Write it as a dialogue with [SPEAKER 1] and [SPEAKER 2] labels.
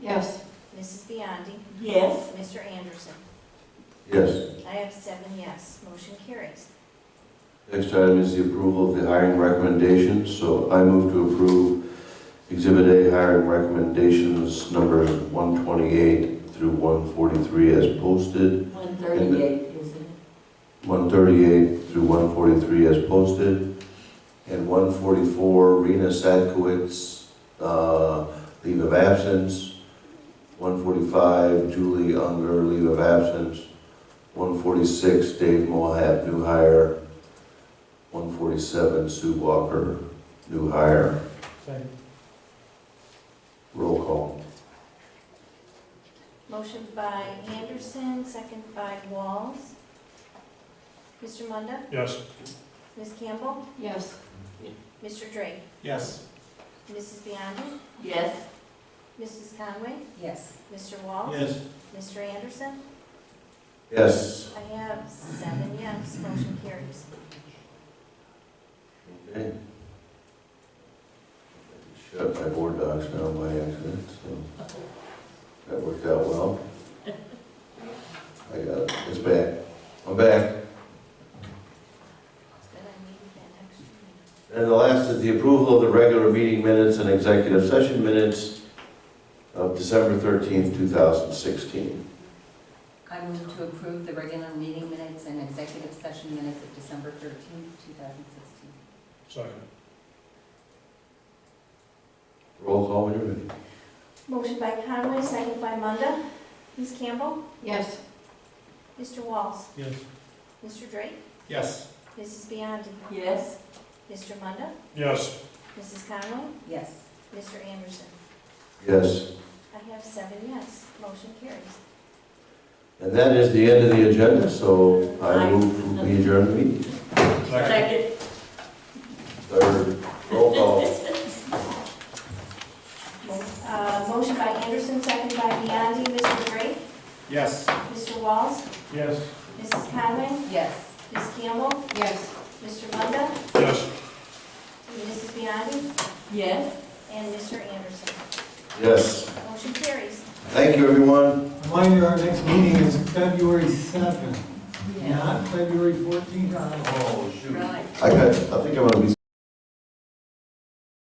[SPEAKER 1] Yes.
[SPEAKER 2] Mrs. Biondi.
[SPEAKER 3] Yes.
[SPEAKER 2] Mr. Anderson.
[SPEAKER 4] Yes.
[SPEAKER 2] I have seven yes. Motion carries.
[SPEAKER 4] Next item is the approval of the hiring recommendations. So I move to approve Exhibit A hiring recommendations numbers 128 through 143 as posted,
[SPEAKER 3] One thirty-eight, isn't
[SPEAKER 4] 138 through 143 as posted, and 144 Rena Sadkowitz, uh, leave of absence, 145 Julie Unger, leave of absence, 146 Dave Mohab, new hire, 147 Sue Walker, new hire.
[SPEAKER 5] Second.
[SPEAKER 4] Roll call.
[SPEAKER 2] Motion by Anderson, second by Walls. Mr. Munda.
[SPEAKER 5] Yes.
[SPEAKER 2] Ms. Campbell.
[SPEAKER 1] Yes.
[SPEAKER 2] Mr. Drake.
[SPEAKER 5] Yes.
[SPEAKER 2] Mrs. Biondi.
[SPEAKER 3] it? Yes.
[SPEAKER 2] Mrs. Conway.
[SPEAKER 3] Yes.
[SPEAKER 2] Mr. Walls.
[SPEAKER 5] Yes.
[SPEAKER 2] Mr. Anderson.
[SPEAKER 4] Yes.
[SPEAKER 2] I have seven yes. Motion carries.
[SPEAKER 4] Okay. Shut my board docs down by accident, so that worked out well. I got it, it's back, I'm back.
[SPEAKER 2] It's good I needed that extra minute.
[SPEAKER 4] And the last is the approval of the regular meeting minutes and executive session minutes of December thirteenth, two thousand sixteen.
[SPEAKER 6] I move to approve the regular meeting minutes and executive session minutes of December 13th, 2016.
[SPEAKER 5] Second.
[SPEAKER 4] Roll call when you're ready.
[SPEAKER 2] Motion by Conway, second by Munda. Ms. Campbell.
[SPEAKER 1] Yes.
[SPEAKER 2] Mr. Walls.
[SPEAKER 5] Yes.
[SPEAKER 2] Mr. Drake.
[SPEAKER 5] Yes.
[SPEAKER 2] Mrs. Biondi.
[SPEAKER 3] Yes.
[SPEAKER 2] Mr. Munda.
[SPEAKER 5] Yes.
[SPEAKER 2] Mrs. Conway.
[SPEAKER 6] Yes.
[SPEAKER 2] Mr. Anderson.
[SPEAKER 4] Yes,
[SPEAKER 2] I have seven yes. Motion carries.
[SPEAKER 4] and that is the end of the agenda, so I move to adjourn the meeting.
[SPEAKER 3] Second.
[SPEAKER 4] Third, roll call.
[SPEAKER 2] Mo- uh, Motion by Anderson, second by Biondi. Mr. Drake.
[SPEAKER 5] Yes.
[SPEAKER 2] Mr. Walls.
[SPEAKER 5] Yes.
[SPEAKER 2] Mrs. Conway.
[SPEAKER 6] Yes.
[SPEAKER 2] Ms. Campbell.
[SPEAKER 1] Yes.
[SPEAKER 2] Mr. Munda.
[SPEAKER 5] Yes.
[SPEAKER 2] Mrs. Biondi.
[SPEAKER 3] Yes.
[SPEAKER 2] And Mr. Anderson.
[SPEAKER 4] Yes,
[SPEAKER 2] Motion carries.
[SPEAKER 4] thank you, everyone.
[SPEAKER 7] Reminder, our next meeting is February 7th,
[SPEAKER 6] Yeah.
[SPEAKER 7] not February 14th.
[SPEAKER 6] Right.
[SPEAKER 4] I got, I think I'm gonna be